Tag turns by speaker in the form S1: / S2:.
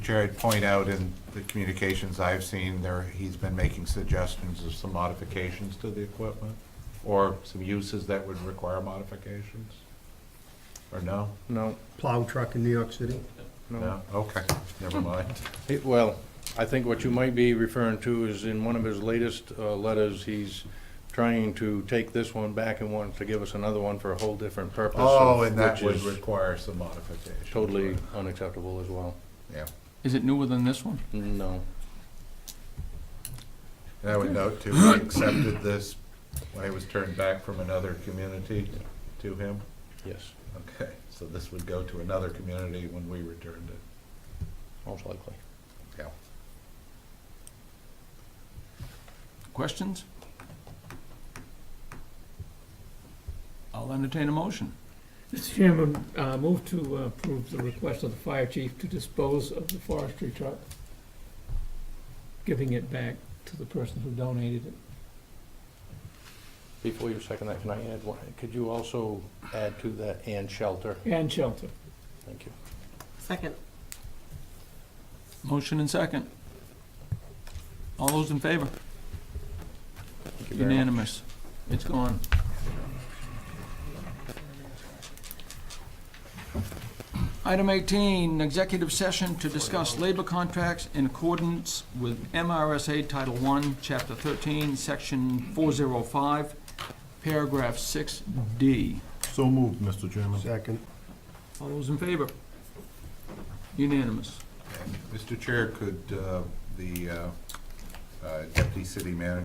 S1: Jared, point out in the communications I've seen, there, he's been making suggestions of some modifications to the equipment, or some uses that would require modifications? Or no?
S2: No,
S3: plow truck in New York City.
S2: no.
S1: No? Okay, never mind.
S2: He- Well, I think what you might be referring to is in one of his latest uh, letters, he's trying to take this one back and wants to give us another one for a whole different purpose.
S1: Oh,
S2: of-
S1: and that
S2: which
S1: would
S2: is
S1: require some modifications.
S2: Totally unacceptable as well.
S1: Yeah.
S4: Is it newer than this one?
S2: No.
S1: And I would note too, I accepted this when it was turned back from another community to him.
S2: Yes,
S1: Okay, so this would go to another community when we returned it.
S2: most likely.
S1: Yeah.
S4: Questions? I'll entertain a motion.
S5: Mr. Chairman, uh, move to approve the request of the fire chief to dispose of the forestry truck, giving it back to the person who donated it.
S2: Before you second that, can I add one? Could you also add to that and shelter?
S5: And shelter.
S2: Thank you.
S6: Second.
S4: Motion and second. All those in favor?
S2: Thank you very much.
S4: Unanimous. It's gone. Item 18, executive session to discuss labor contracts in accordance with MRSA Title I, Chapter 13, Section 405, Paragraph 6D.
S7: So moved, Mr. Chairman.
S3: Second.
S4: All those in favor? Unanimous.
S1: Mr. Chair, could uh, the uh, uh, Deputy City Manager